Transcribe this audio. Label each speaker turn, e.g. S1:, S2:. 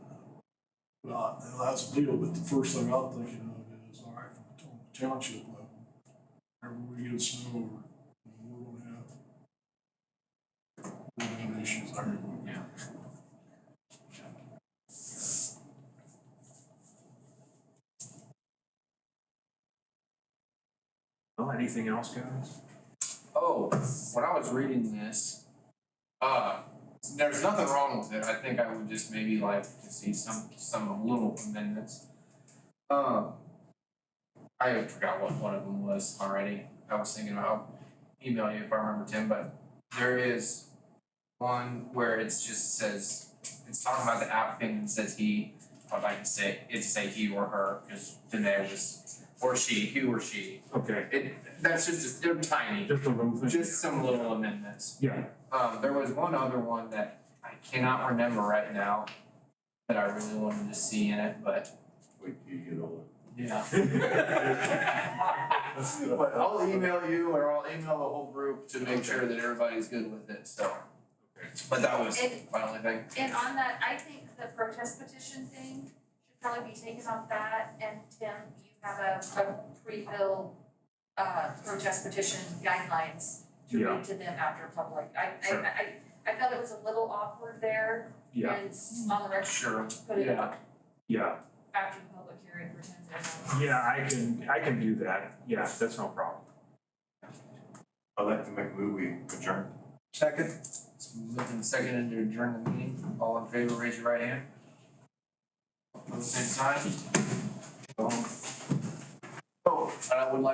S1: not, now that's a deal, but the first thing I'm thinking of is, all right, from the town- township level, whenever we get snow, we're gonna have we're gonna have issues there.
S2: Yeah.
S3: Well, anything else, guys?
S2: Oh, when I was reading this, uh, there's nothing wrong with it. I think I would just maybe like to see some some little amendments. Um, I forgot what one of them was already. I was thinking about I'll email you if I remember Tim, but there is one where it's just says it's talking about the applicant and says he. I'd like to say it to say he or her because today was or she, he or she.
S3: Okay,
S2: It that's just they're tiny.
S3: just a little thing.
S2: Just some little amendments.
S3: Yeah,
S2: Um, there was one other one that I cannot remember right now that I really wanted to see in it, but
S4: Wait till you get older.
S2: yeah. But I'll email you or I'll email the whole group to make sure that everybody's good with it, so. But that was my only thing.
S5: And on that, I think the protest petition thing should probably be taken off that, and Tim, you have a, a pre-bill uh, protest petition guidelines to
S3: Yeah.
S5: read to them after public, I, I,
S3: Sure.
S5: I, I felt it was a little awkward there,
S3: yeah,
S5: and s- on the record,
S2: Sure,
S5: put it
S2: yeah,
S3: yeah,
S5: after the public hearing for ten seconds.
S3: yeah, I can, I can do that, yeah, that's no problem.
S4: I'd like to make a movie adjourn.
S6: Second,
S2: it's moved and seconded to adjourn the meeting. All in favor, raise your right hand. At the same time. Um, Oh, and I would like